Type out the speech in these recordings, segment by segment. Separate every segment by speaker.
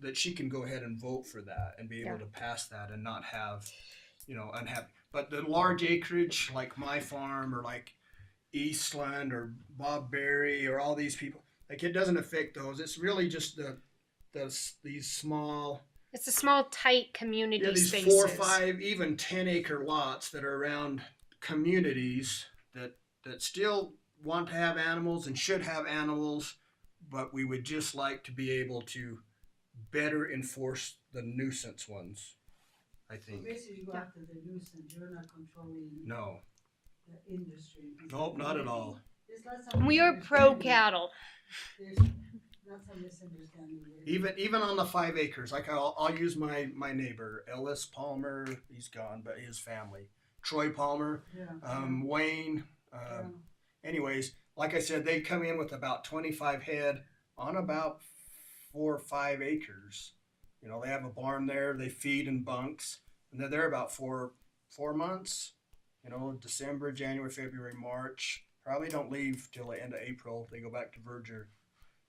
Speaker 1: that she can go ahead and vote for that and be able
Speaker 2: Yeah.
Speaker 1: to pass that and not have, you know, unhappy. But the large acreage like my farm or like Eastland or Bob Berry or all these people, like it doesn't affect those. It's really just the, the s- these small
Speaker 2: It's a small, tight community
Speaker 1: yeah, these
Speaker 2: spaces.
Speaker 1: four, five, even ten acre lots that are around communities that that still want to have animals and should have animals, but we would just like to be able to better enforce the nuisance ones. I think
Speaker 3: Basically, you go after the nuisance, you're not controlling
Speaker 1: no,
Speaker 3: the industry.
Speaker 1: nope, not at all.
Speaker 3: There's lots of
Speaker 2: We are pro
Speaker 3: misunderstanding.
Speaker 2: cattle.
Speaker 3: There's lots of misunderstanding. there.
Speaker 1: Even even on the five acres, like I'll, I'll use my my neighbor Ellis Palmer. He's gone, but his family, Troy Palmer,
Speaker 3: Yeah.
Speaker 1: um, Wayne.
Speaker 3: yeah.
Speaker 1: Um, anyways, like I said, they come in with about 25 head on about four or five acres. You know, they have a barn there, they feed in bunks, and they're there about four four months. You know, December, January, February, March. Probably don't leave till the end of April. They go back to verdure.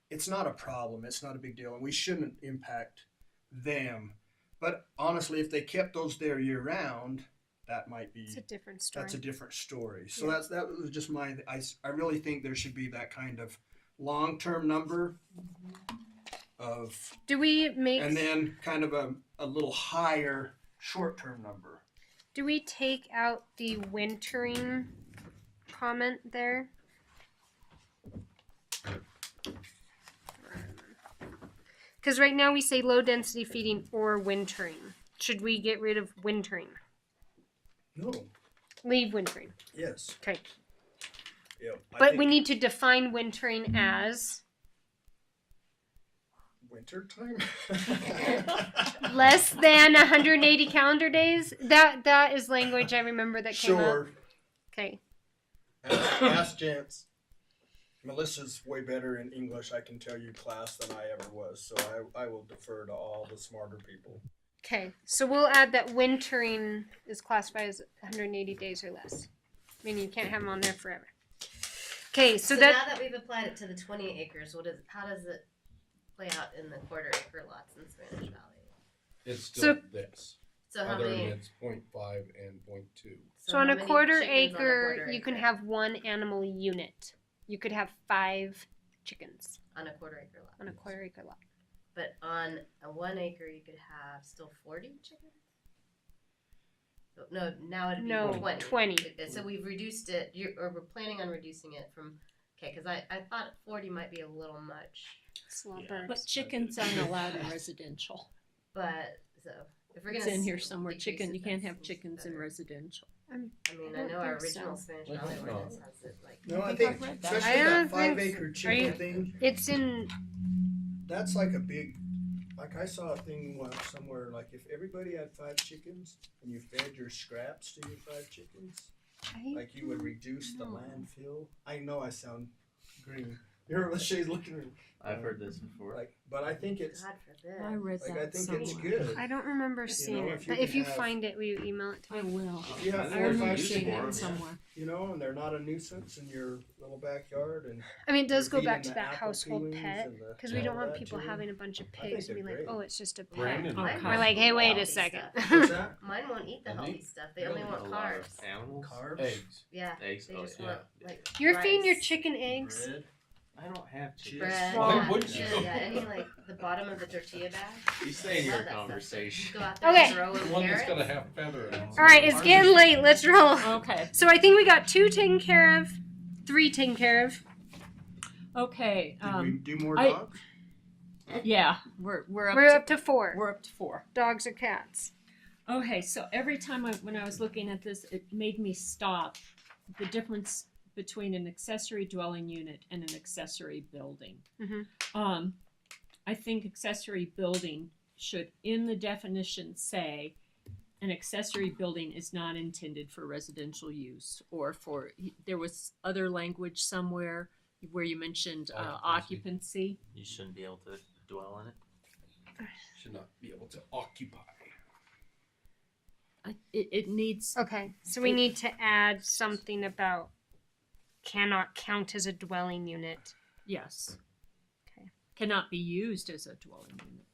Speaker 1: It's not a problem. It's not a big deal, and we shouldn't impact them. But honestly, if they kept those there year round, that might be
Speaker 2: It's a different story.
Speaker 1: that's a different story. So
Speaker 2: Yeah.
Speaker 1: that's that was just my. I, s- I really think there should be that kind of long term number
Speaker 3: Mhm.
Speaker 2: Mm-hmm.
Speaker 1: of,
Speaker 2: do we make?
Speaker 1: and then kind of a, a little higher short term number.
Speaker 2: do we take out the wintering comment there? Because right now we say low density feeding or wintering. Should we get rid of wintering?
Speaker 1: No.
Speaker 2: Leave wintering.
Speaker 1: Yes.
Speaker 2: Okay.
Speaker 1: Yeah.
Speaker 2: But we need to define wintering as
Speaker 1: winter time.
Speaker 2: less than 180 calendar days. That that is language I remember that came up.
Speaker 1: Sure.
Speaker 2: Okay.
Speaker 1: Ask, ask Jance. Melissa's way better in English, I can tell you, class than I ever was. So I, I will defer to all the smarter people.
Speaker 2: Okay. So we'll add that wintering is classified as 180 days or less. Meaning you can't have them on there forever. Okay. So,
Speaker 4: So,
Speaker 2: that
Speaker 4: now that we've applied it to the 20 acres, what is how does it play out in the quarter acre lots in Spanish Valley?
Speaker 5: It's still this,
Speaker 4: So how
Speaker 5: other than
Speaker 4: many?
Speaker 5: it's point five and point two.
Speaker 2: so on
Speaker 4: how
Speaker 2: a
Speaker 4: many
Speaker 2: quarter
Speaker 4: chickens on a
Speaker 2: acre,
Speaker 4: quarter
Speaker 2: you can
Speaker 4: acre?
Speaker 2: have one animal unit. You could have five chickens
Speaker 4: on a quarter acre lot.
Speaker 2: on a quarter acre lot.
Speaker 4: But on a one acre, you could have still 40 chickens. So- No, now it'd be
Speaker 2: No,
Speaker 4: 20.
Speaker 2: 20.
Speaker 4: Uh, So we've reduced it, you or we're planning on reducing it from, okay, because I, I thought 40 might be a little much,
Speaker 2: It's a lot of
Speaker 6: Yeah.
Speaker 2: birds.
Speaker 7: But chickens aren't allowed in residential.
Speaker 4: but so if we're going
Speaker 7: It's
Speaker 4: to.
Speaker 7: in here somewhere, chicken, you can't have chickens in residential.
Speaker 4: I mean,
Speaker 2: I
Speaker 4: I
Speaker 2: don't
Speaker 4: know our
Speaker 2: think so.
Speaker 4: original Spanish
Speaker 5: Let's
Speaker 4: Valley
Speaker 5: not.
Speaker 4: ordinance has it like.
Speaker 1: No, I
Speaker 7: I
Speaker 1: think
Speaker 7: think I've read that.
Speaker 1: especially
Speaker 2: I
Speaker 1: that
Speaker 2: don't
Speaker 1: five
Speaker 2: think-
Speaker 1: acre
Speaker 2: are you-
Speaker 1: chicken thing.
Speaker 2: It's in
Speaker 1: That's like a big, like I saw a thing once somewhere, like if everybody had five chickens and you fed your scraps to your five chickens, like you would reduce the
Speaker 2: Mm-hmm.
Speaker 1: landfill. I know I sound green. You're what she's looking at. me,
Speaker 6: I've heard this before.
Speaker 1: Like, but I think it's,
Speaker 4: God
Speaker 7: I
Speaker 4: forbid.
Speaker 7: read
Speaker 1: like, I
Speaker 7: that
Speaker 1: think it's
Speaker 7: somewhere.
Speaker 1: good.
Speaker 2: I don't remember seeing
Speaker 1: know,
Speaker 2: it,
Speaker 1: if you
Speaker 2: but if
Speaker 1: can
Speaker 2: you
Speaker 1: have-
Speaker 2: find it, will you email it to me?
Speaker 7: I will.
Speaker 1: If you have
Speaker 7: I
Speaker 1: four or
Speaker 7: remember
Speaker 1: five
Speaker 6: used
Speaker 7: seeing
Speaker 6: for them, yeah.
Speaker 7: that
Speaker 1: chickens,
Speaker 7: somewhere.
Speaker 1: you know, and they're not a nuisance in your little backyard and.
Speaker 2: I mean, it does
Speaker 1: you're
Speaker 2: go back
Speaker 1: feeding
Speaker 2: to
Speaker 1: the
Speaker 2: that
Speaker 1: apple
Speaker 2: household
Speaker 1: peelings
Speaker 2: pet
Speaker 1: and the-
Speaker 2: because we don't
Speaker 1: all
Speaker 2: want
Speaker 1: that
Speaker 2: people
Speaker 1: too.
Speaker 2: having a bunch of
Speaker 1: I think
Speaker 2: pigs and be
Speaker 1: they're
Speaker 2: like,
Speaker 1: great.
Speaker 2: oh, it's just a pig.
Speaker 6: Brandon,
Speaker 7: Okay.
Speaker 2: We're like, hey, wait a
Speaker 4: Healthy
Speaker 2: second.
Speaker 1: What's that?
Speaker 4: Mine won't eat the
Speaker 6: And they-
Speaker 4: healthy stuff. They
Speaker 6: You
Speaker 4: only
Speaker 6: don't
Speaker 4: want
Speaker 6: eat a lot of
Speaker 4: carbs.
Speaker 6: Animals?
Speaker 1: Carbs?
Speaker 5: Eggs.
Speaker 4: Yeah.
Speaker 6: Eggs?
Speaker 4: They
Speaker 6: oh,
Speaker 4: just
Speaker 6: yeah.
Speaker 4: want like
Speaker 2: You're feeding your
Speaker 4: rice,
Speaker 2: chicken eggs.
Speaker 1: Bread.
Speaker 6: I don't have chips.
Speaker 4: bread.
Speaker 6: Why
Speaker 4: yeah,
Speaker 6: would you?
Speaker 4: Yeah, yeah, any like the bottom of the tortilla bag.
Speaker 6: You stay in
Speaker 4: Love
Speaker 6: your
Speaker 4: that stuff.
Speaker 6: conversation.
Speaker 4: Go out there
Speaker 2: Okay.
Speaker 4: and throw in
Speaker 5: One that's
Speaker 4: carrots.
Speaker 5: gonna have feather in it.
Speaker 2: All right, it's getting late. Let's roll.
Speaker 7: Okay,
Speaker 2: So I think we got two taken care of, three taken care of.
Speaker 7: okay,
Speaker 1: Did we
Speaker 7: um,
Speaker 1: do more
Speaker 7: I-
Speaker 1: dogs?
Speaker 7: yeah, we're, we're
Speaker 2: We're
Speaker 7: up
Speaker 2: up to
Speaker 7: to,
Speaker 2: four
Speaker 7: we're up to four.
Speaker 2: dogs or cats.
Speaker 7: Okay, so every time I, when I was looking at this, it made me stop. The difference between an accessory dwelling unit and an accessory building.
Speaker 2: Mhm.
Speaker 7: Um, I think accessory building should, in the definition, say an accessory building is not intended for residential use or for. There was other language somewhere where you mentioned uh, occupancy.
Speaker 6: You shouldn't be able to dwell on it.
Speaker 5: Should not be able to occupy.
Speaker 7: I, it, it needs
Speaker 2: Okay, so we need to add something about cannot count as a dwelling unit.
Speaker 7: yes.
Speaker 2: Okay.
Speaker 7: Cannot be used as a dwelling unit.